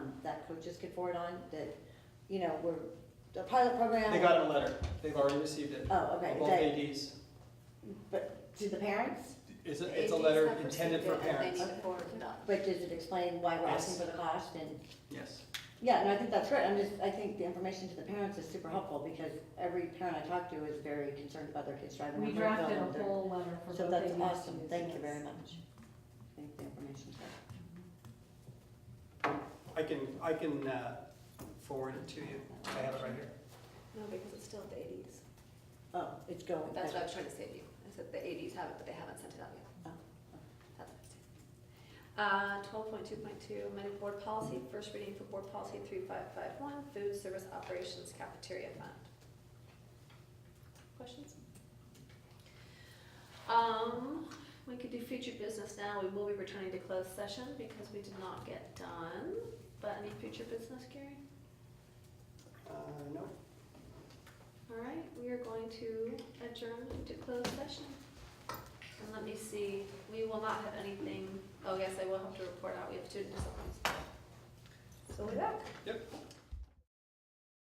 coaches um, could forward on, that, you know, we're, a pilot program? They got a letter, they've already received it, Oh, okay, both that, ADs. but to the parents, It's, The a- it's a ADs letter have intended for received it, and parents, They need to forward it up. but does it explain why we're asking Yes. for the cost and? yes. Yeah, no, I think that's great, I'm just, I think the information to the parents is super helpful, because every parent I talk to is very concerned about their kids driving. We around Brookville drafted and a their- whole letter for both So that's ABCs, awesome, thank you yes. very much. I think the information's helpful. I can, I can uh, forward it to you, I have it right here. No, because it's still at the eighties. Oh, it's going. That's what I was trying to say to you. I said the eighties have it, but they haven't sent it out Oh, yet. oh. That's what I said. Uh, twelve point two point two, amended board policy, first reading for board policy three five five one, food service operations cafeteria fund. Questions? Um, we could do future business now. We will be returning to closed session because we did not get done. But any future business, Gary? Uh, no, All right, we are going to adjourn to closed session. And let me see, we will not have anything, oh, yes, I will have to report out, we have student disciplines. So we're back. Yep.